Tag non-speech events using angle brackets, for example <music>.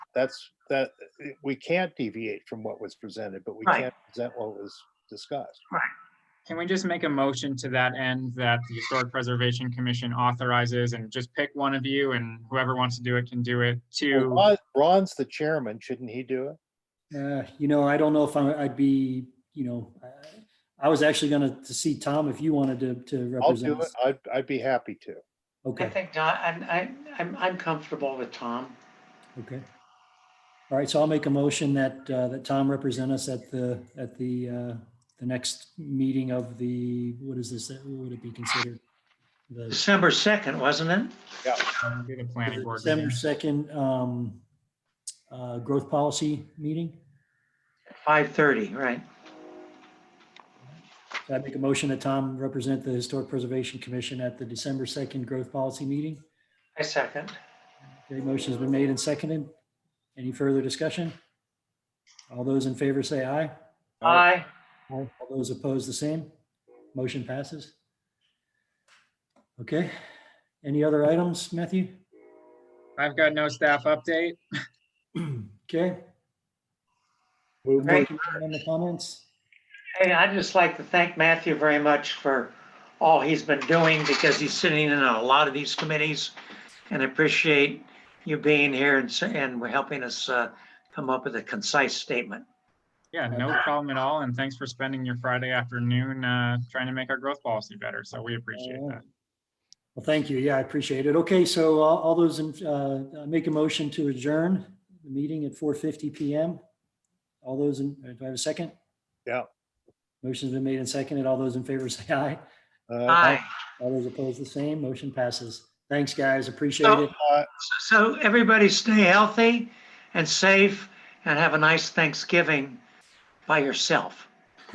that's, that, eh, we can't deviate from what was presented, but we Right. can't present what was discussed. Can we just make a motion to that end that the Historic Preservation Commission authorizes and just pick one of you and whoever wants to do it can do it Well, to, Ron- Ron's the chairman, shouldn't he do it? Uh, you know, I don't know if I- I'd be, you know, I- I was actually gonna to see Tom if you wanted to, to I'll do represent. it. us. I'd, I'd be happy to. I Okay, think not, I'm, I, I'm, I'm comfortable with Tom. okay. All right, so I'll make a motion that, uh, that Tom represent us at the, at the, uh, the next meeting of the, what is this, what would it be considered? The December 2nd, wasn't it? um, do the planning board. December meeting. second, um, uh, growth policy meeting? 5:30, right. So I make a motion that Tom represent the Historic Preservation Commission at the December second growth policy meeting? I second. Okay, motion's been made and seconded. Any further discussion? All those in favor say aye. Aye. All those opposed, the same. Motion passes. Okay, any other items, Matthew? I've got no staff update. Okay. Move Thank Anyone In the comments? Hey, I'd just like to thank Matthew very much for all he's been doing because he's sitting in a lot of these committees. And I appreciate you being here and, s- and we're helping us uh, come up with a concise statement. Yeah, no problem at all. And thanks for spending your Friday afternoon, uh, trying to make our growth policy better. So we appreciate All right. that. Well, thank you. Yeah, I appreciate it. Okay, so all, all those, in uh, make a motion to adjourn the meeting at four fifty PM. All those, in uh, do I have a second? Yeah. Motion's been made and seconded. All those in favor <laughs> say aye. Uh, Aye. All those opposed, the same. Motion passes. Thanks, guys. Appreciate So- it. uh, So everybody stay healthy and safe and have a nice Thanksgiving by yourself.